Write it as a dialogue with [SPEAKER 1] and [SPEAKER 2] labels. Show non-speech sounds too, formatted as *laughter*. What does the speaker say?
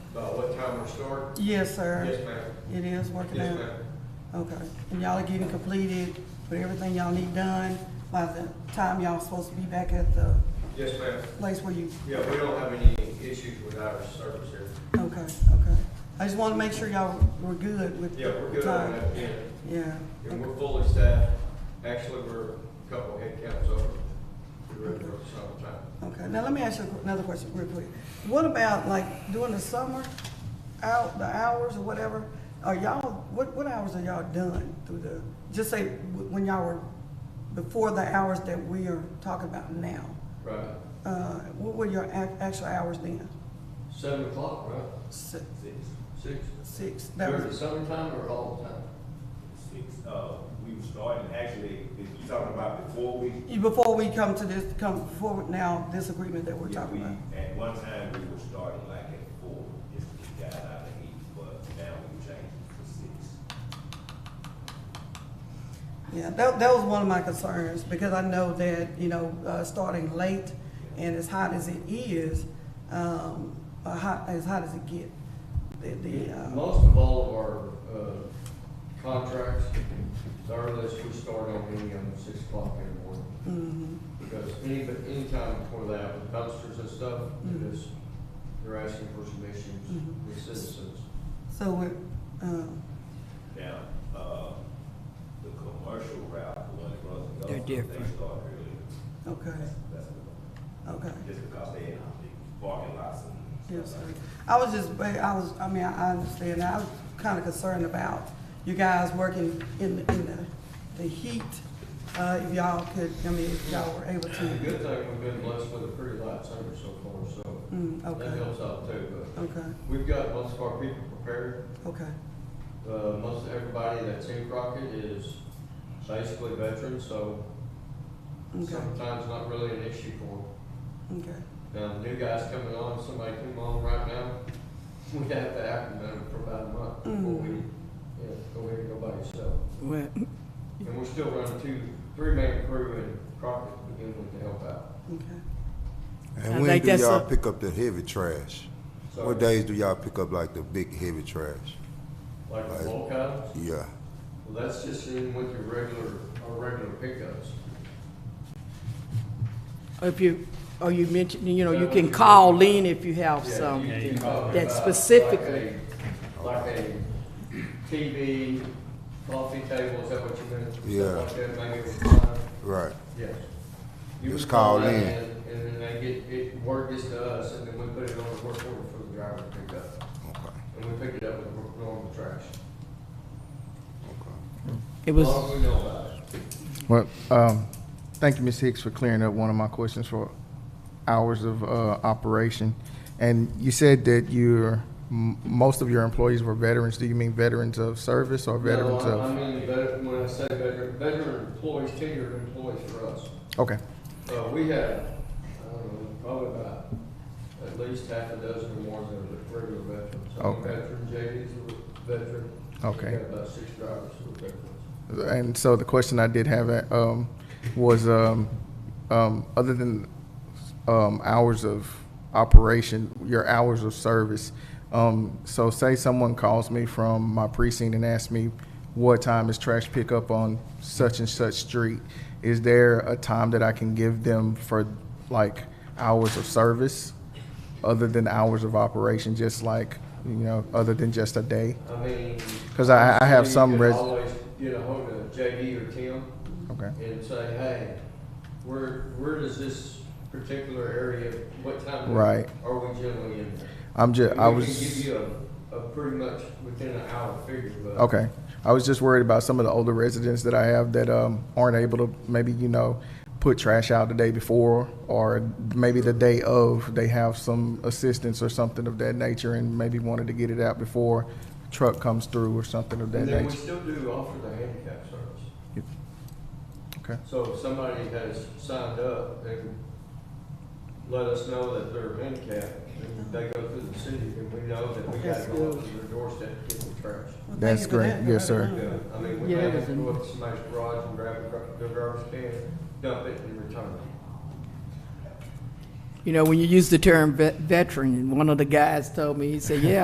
[SPEAKER 1] about Uh, what time we're starting?
[SPEAKER 2] Yes, sir.
[SPEAKER 1] Yes, ma'am.
[SPEAKER 2] It is working
[SPEAKER 1] Yes,
[SPEAKER 2] out?
[SPEAKER 1] ma'am.
[SPEAKER 2] Okay. And y'all are getting completed with everything y'all need done by the time y'all supposed to be back at the
[SPEAKER 1] Yes, ma'am.
[SPEAKER 2] place where you,
[SPEAKER 1] Yeah, we don't have any issues with our service here.
[SPEAKER 2] okay, okay. I just want to make sure y'all were good with
[SPEAKER 1] Yeah, we're
[SPEAKER 2] the
[SPEAKER 1] good on
[SPEAKER 2] time.
[SPEAKER 1] that end.
[SPEAKER 2] Yeah.
[SPEAKER 1] And we're fully staffed. Actually, we're a couple head counts over. We're ready for the summertime.
[SPEAKER 2] Okay, now let me ask you another question real quick. What about like during the summer, out, the hours or whatever, are y'all, what, what hours are y'all done through the, just say wh- when y'all were, before the hours that we are talking about now?
[SPEAKER 1] Right.
[SPEAKER 2] Uh, what were your ac- actual hours then?
[SPEAKER 3] Seven o'clock, right?
[SPEAKER 2] Six,
[SPEAKER 4] Six,
[SPEAKER 3] Six.
[SPEAKER 2] six, that
[SPEAKER 3] During the
[SPEAKER 2] was,
[SPEAKER 3] summertime or all the time?
[SPEAKER 4] six, uh, we were starting, actually, you talking about before we,
[SPEAKER 2] you- before we come to this, come forward now, this agreement that we're
[SPEAKER 4] yeah,
[SPEAKER 2] talking
[SPEAKER 4] we,
[SPEAKER 2] about?
[SPEAKER 4] at one time, we were starting like at four, just to get guys out of heat, but now we changed it to six.
[SPEAKER 2] Yeah, that, that was one of my concerns, because I know that, you know, uh, starting late and as hot as it is, um, uh, hot, as hot as it get, the, the, uh,
[SPEAKER 3] Most of all of our, uh, contracts, the earliest we start on any of them, six o'clock in the morning.
[SPEAKER 2] mhm,
[SPEAKER 3] Because any, but any time before that, with dumpsters and stuff,
[SPEAKER 2] Mm-hmm.
[SPEAKER 3] it is, you're asking for submissions
[SPEAKER 2] Mhm.
[SPEAKER 3] with citizens.
[SPEAKER 2] so we, uh,
[SPEAKER 4] Now, uh, the commercial route, the one that runs the
[SPEAKER 5] They're
[SPEAKER 4] Gulf,
[SPEAKER 5] different.
[SPEAKER 4] they start earlier.
[SPEAKER 2] okay,
[SPEAKER 4] That's, that's, what-
[SPEAKER 2] okay.
[SPEAKER 4] just because they had the parking lots and
[SPEAKER 2] Yes,
[SPEAKER 4] stuff
[SPEAKER 2] sir.
[SPEAKER 4] like that.
[SPEAKER 2] I was just, ba- I was, I mean, I I understand, I was kind of concerned about you guys working in, the- in the, the heat. Uh, if y'all could, I mean, if y'all were able
[SPEAKER 3] The
[SPEAKER 2] to,
[SPEAKER 3] good thing, we've been blessed with a pretty light summer so far, so
[SPEAKER 2] mm,
[SPEAKER 3] that
[SPEAKER 2] okay,
[SPEAKER 3] helps out too, but
[SPEAKER 2] okay,
[SPEAKER 3] we've got most of our people prepared.
[SPEAKER 2] okay,
[SPEAKER 3] Uh, most everybody that's in Crockett is basically veterans, so
[SPEAKER 2] okay,
[SPEAKER 3] sometimes not really an issue for
[SPEAKER 2] okay.
[SPEAKER 3] them. Now, new guys coming on, somebody come on right now, *laughs* we have to have them for about a month before we,
[SPEAKER 2] Mm.
[SPEAKER 3] yeah, go ahead and go by yourself.
[SPEAKER 5] Well,
[SPEAKER 3] And we're still running two, three-man crew in Crockett to begin with to help out.
[SPEAKER 2] Okay.
[SPEAKER 5] I
[SPEAKER 6] And when
[SPEAKER 5] think
[SPEAKER 6] do
[SPEAKER 5] that's
[SPEAKER 6] y'all
[SPEAKER 5] a-
[SPEAKER 6] pick up the heavy trash?
[SPEAKER 3] So,
[SPEAKER 6] What days do y'all pick up like the big heavy trash?
[SPEAKER 3] Like the bulk items,
[SPEAKER 6] Yeah.
[SPEAKER 3] well, that's just in with your regular, our regular pickups.
[SPEAKER 5] if you, or you mentioned, you know, you
[SPEAKER 3] Yeah.
[SPEAKER 5] can call in if you have
[SPEAKER 3] Yeah,
[SPEAKER 5] some.
[SPEAKER 3] you can talk
[SPEAKER 5] that
[SPEAKER 3] about
[SPEAKER 5] specifically-
[SPEAKER 3] Like a like a TV, coffee table, is that what you meant? Stuff
[SPEAKER 6] Yeah.
[SPEAKER 3] like that, maybe it was fine.
[SPEAKER 6] Right.
[SPEAKER 3] Yes. You
[SPEAKER 6] Just
[SPEAKER 3] would call
[SPEAKER 6] call
[SPEAKER 3] that
[SPEAKER 6] in.
[SPEAKER 3] And then they get, it, word gets to us, and then we put it on the work order for the driver to pick up.
[SPEAKER 6] Okay.
[SPEAKER 3] And we pick it up with the normal trash.
[SPEAKER 6] Okay.
[SPEAKER 5] It
[SPEAKER 3] As
[SPEAKER 5] was,
[SPEAKER 3] long as we know about it.
[SPEAKER 7] Well, um, thank you, Ms. Hicks, for clearing up one of my questions for hours of, uh, operation. And you said that your, m- most of your employees were veterans. Do you mean veterans of service or veterans
[SPEAKER 3] No, I- I
[SPEAKER 7] of?
[SPEAKER 3] mean, veteran, when I say veteran, veteran employees, tenured employees for us.
[SPEAKER 7] Okay,
[SPEAKER 3] Uh, we had, I don't know, probably about at least half a dozen or more that were regular veterans. Some
[SPEAKER 7] Okay.
[SPEAKER 3] veteran JDs were veteran.
[SPEAKER 7] Okay.
[SPEAKER 3] We had about six drivers who were veterans.
[SPEAKER 7] and so the question I did have, uh, um, was, um, um, other than, um, hours of operation, your hours of service. Um, so say someone calls me from my precinct and asks me, what time is trash pickup on such and such street? Is there a time that I can give them for like hours of service other than hours of operation, just like, you know, other than just a day?
[SPEAKER 3] I mean.
[SPEAKER 7] 'Cause I- I have some
[SPEAKER 3] You could
[SPEAKER 7] res-
[SPEAKER 3] Always get a hold of JD or Tim
[SPEAKER 7] Okay,
[SPEAKER 3] and say, hey, where, where does this particular area, what time?
[SPEAKER 7] Right.
[SPEAKER 3] Are we generally in there?
[SPEAKER 7] I'm just, I
[SPEAKER 3] And we
[SPEAKER 7] was.
[SPEAKER 3] can Give you a, a pretty much within an hour figure, but.
[SPEAKER 7] Okay. I was just worried about some of the older residents that I have that um, aren't able to maybe, you know, put trash out the day before or maybe the day of. They have some assistance or something of that nature and maybe wanted to get it out before truck comes through or something of that
[SPEAKER 3] And then we
[SPEAKER 7] nature.
[SPEAKER 3] still do offer the handicap service.
[SPEAKER 7] Okay.
[SPEAKER 3] So if somebody has signed up and let us know that they're handicapped, and they go through the city, and we know that we gotta go up to their doorstep to get the trash.
[SPEAKER 2] Well, thank
[SPEAKER 7] That's
[SPEAKER 2] you for
[SPEAKER 7] great.
[SPEAKER 2] that. Mm.
[SPEAKER 7] Yes, sir.
[SPEAKER 3] Yeah, I mean, we
[SPEAKER 5] Yeah,
[SPEAKER 3] may
[SPEAKER 5] it
[SPEAKER 3] have
[SPEAKER 5] was
[SPEAKER 3] to
[SPEAKER 5] in-
[SPEAKER 3] go up to somebody's garage and grab a, gr- their garbage can, dump it, and return it.
[SPEAKER 5] you know, when you use the term vet- veteran, one of the guys told me, he said, yeah,